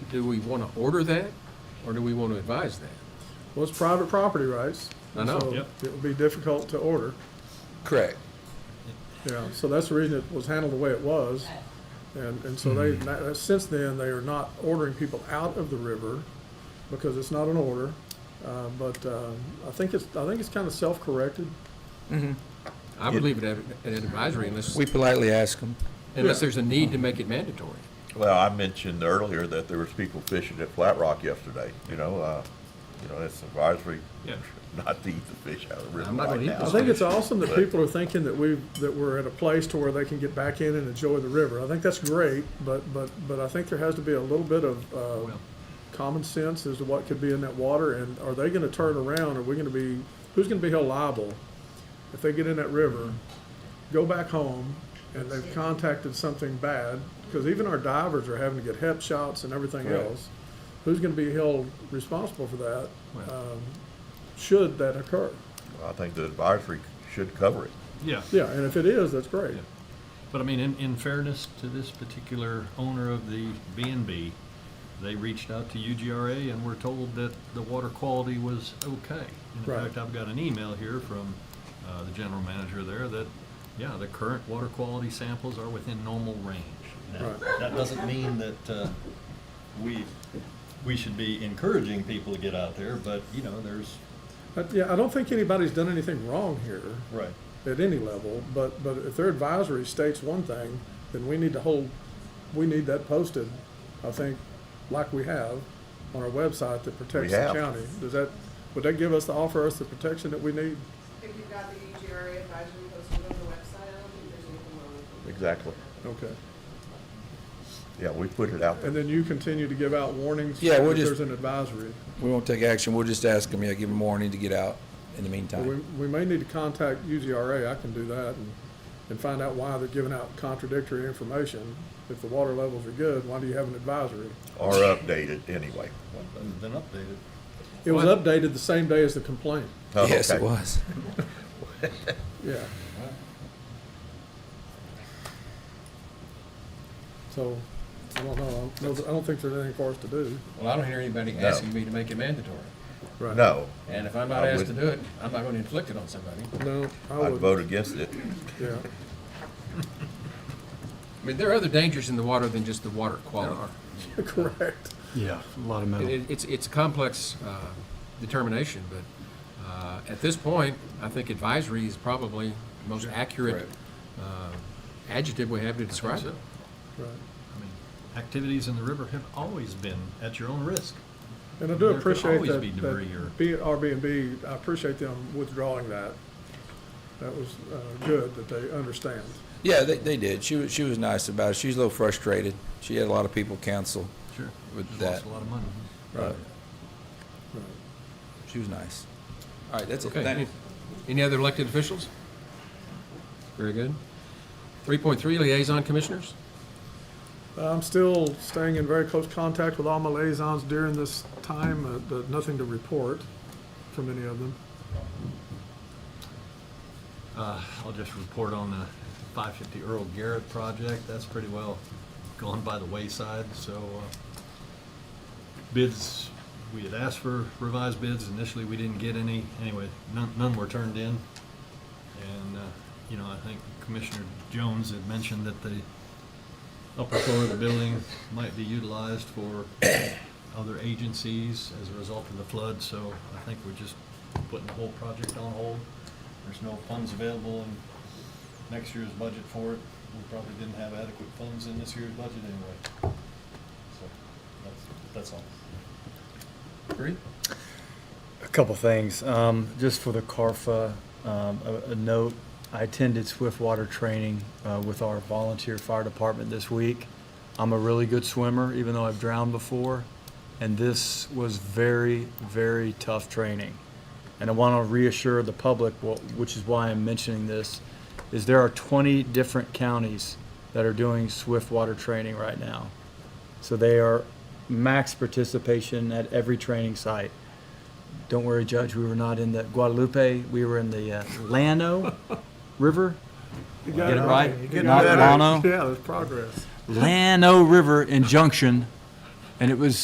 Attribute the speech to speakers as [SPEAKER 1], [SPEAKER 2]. [SPEAKER 1] do we want to order that, or do we want to advise that?
[SPEAKER 2] Well, it's private property rights.
[SPEAKER 1] I know.
[SPEAKER 2] so
[SPEAKER 3] Yep.
[SPEAKER 2] It would be difficult to order,
[SPEAKER 4] Correct.
[SPEAKER 2] yeah, so that's the reason it was handled the way it was. And, and so
[SPEAKER 1] Hmm.
[SPEAKER 2] they, that- since then, they are not ordering people out of the river because it's not an order. Uh, but, um, I think it's, I think it's kind of self-corrected.
[SPEAKER 1] I would leave it at at advisory unless,
[SPEAKER 4] We politely ask them.
[SPEAKER 1] unless
[SPEAKER 2] Yeah.
[SPEAKER 1] there's a need to make it mandatory.
[SPEAKER 5] Well, I mentioned earlier that there was people fishing at Flat Rock yesterday, you know, uh, you know, that's advisory,
[SPEAKER 3] Yeah.
[SPEAKER 5] not to eat the fish out of the river
[SPEAKER 1] I'm not
[SPEAKER 5] right
[SPEAKER 1] gonna eat
[SPEAKER 5] now.
[SPEAKER 2] I think it's awesome that people are thinking that we, that we're at a place to where they can get back in and enjoy the river. I think that's great, but, but, but I think there has to be a little bit of, uh, common sense as to what could be in that water, and are they gonna turn around, are we gonna be, who's gonna be held liable if they get in that river, go back home, and they've contacted something bad, because even our divers are having to get hep shots and everything
[SPEAKER 4] Right.
[SPEAKER 2] else. Who's gonna be held responsible for that,
[SPEAKER 1] Well.
[SPEAKER 2] um, should that occur?
[SPEAKER 5] I think the advisory should cover it.
[SPEAKER 3] Yeah,
[SPEAKER 2] Yeah, and if it is, that's great.
[SPEAKER 3] Yeah. but I mean, in, in fairness to this particular owner of the B and B, they reached out to UGRA and were told that the water quality was okay. And
[SPEAKER 2] Right.
[SPEAKER 3] In fact, I've got an email here from, uh, the general manager there that, yeah, the current water quality samples are within normal range. Now,
[SPEAKER 2] Right.
[SPEAKER 3] That doesn't mean that, uh, we, we should be encouraging people to get out there, but, you know, there's,
[SPEAKER 2] But, yeah, I don't think anybody's done anything wrong here
[SPEAKER 3] right.
[SPEAKER 2] at any level, but, but if their advisory states one thing, then we need to hold, we need that posted, I think, like we have on our website that protects the
[SPEAKER 5] have.
[SPEAKER 2] county. Does that, would that give us, the offer us the protection that we need?
[SPEAKER 6] If you've got the E EGRA advisory posted on the website, I don't think there's anything wrong with it.
[SPEAKER 5] Exactly.
[SPEAKER 2] Okay.
[SPEAKER 5] Yeah, we put it out
[SPEAKER 2] And
[SPEAKER 5] there.
[SPEAKER 2] then you continue to give out warnings
[SPEAKER 4] Yeah, we'll
[SPEAKER 2] if
[SPEAKER 4] just-
[SPEAKER 2] there's an advisory.
[SPEAKER 4] We won't take action. We'll just ask them, yeah, give them warning to get out in the
[SPEAKER 2] Well, We,
[SPEAKER 4] meantime.
[SPEAKER 2] we may need to contact UGRA, I can do that, and, and find out why they're giving out contradictory information. If the water levels are good, why do you have an advisory?
[SPEAKER 5] Or update it anyway.
[SPEAKER 3] Been updated.
[SPEAKER 2] It was
[SPEAKER 1] Well, I-
[SPEAKER 2] updated the same day as the complaint,
[SPEAKER 5] Oh,
[SPEAKER 4] Yes, it
[SPEAKER 5] okay.
[SPEAKER 4] was.
[SPEAKER 2] yeah. So, I don't know, I don't know that- I don't think there's anything for us to do.
[SPEAKER 1] Well, I don't hear anybody
[SPEAKER 5] No.
[SPEAKER 1] asking me to make it mandatory.
[SPEAKER 2] Right.
[SPEAKER 5] No,
[SPEAKER 1] And if I'm not
[SPEAKER 5] I
[SPEAKER 1] asked to
[SPEAKER 5] would-
[SPEAKER 1] do it, I'm not going to inflict it on somebody.
[SPEAKER 2] No, I
[SPEAKER 5] I'd
[SPEAKER 2] would,
[SPEAKER 5] vote against it.
[SPEAKER 2] yeah,
[SPEAKER 1] I mean, there are other dangers in the water than just the water quality.
[SPEAKER 2] correct,
[SPEAKER 3] Yeah, a lot of
[SPEAKER 1] It- it- It's, it's a complex uh, determination, but uh, at this point, I think advisory is probably the most accurate uh, adjective we have to describe it.
[SPEAKER 2] right.
[SPEAKER 3] I mean, activities in the river have always been at your own risk.
[SPEAKER 2] And I do
[SPEAKER 3] There could
[SPEAKER 2] appreciate
[SPEAKER 3] always
[SPEAKER 2] that,
[SPEAKER 3] be debris or-
[SPEAKER 2] that, be it Airbnb, I appreciate them withdrawing that. That was, uh, good that they understand.
[SPEAKER 4] Yeah, they, they did. She was, she was nice about it. She was a little frustrated. She had a lot of people counsel.
[SPEAKER 3] Sure.
[SPEAKER 4] With
[SPEAKER 3] Just
[SPEAKER 4] that.
[SPEAKER 3] Lost a lot of money.
[SPEAKER 4] but
[SPEAKER 2] Right.
[SPEAKER 4] She was nice. All right, that's it.
[SPEAKER 1] Okay.
[SPEAKER 4] Thank you.
[SPEAKER 1] Any- Any other elected officials? Very good. 3.3 liaison commissioners?
[SPEAKER 2] Uh, I'm still staying in very close contact with all my liaisons during this time, uh, but nothing to report from any of them.
[SPEAKER 3] Uh, I'll just report on the five fifty Earl Garrett project. That's pretty well gone by the wayside, so, uh, bids, we had asked for revised bids. Initially, we didn't get any. Anyway, none, none were turned in. And, uh, you know, I think Commissioner Jones had mentioned that the upper floor of the building might be utilized for other agencies as a result of the flood, so I think we're just putting the whole project on hold. There's no funds available in next year's budget for it. We probably didn't have adequate funds in this year's budget anyway. So, that's, that's all.
[SPEAKER 1] Three?
[SPEAKER 7] A couple things. Um, just for the CARFA, um, a, a note, I attended swift water training, uh, with our volunteer fire department this week. I'm a really good swimmer, even though I've drowned before, and this was very, very tough training. And I want to reassure the public, wh- which is why I'm mentioning this, is there are 20 different counties that are doing swift water training right now. So they are max participation at every training site. Don't worry, Judge, we were not in the Guadalupe, we were in the uh, Llano River.
[SPEAKER 2] You
[SPEAKER 7] Get it right?
[SPEAKER 2] You
[SPEAKER 7] Not
[SPEAKER 2] got it.
[SPEAKER 7] Lano?
[SPEAKER 2] Yeah, there's progress.
[SPEAKER 7] Llano River in Junction, and it was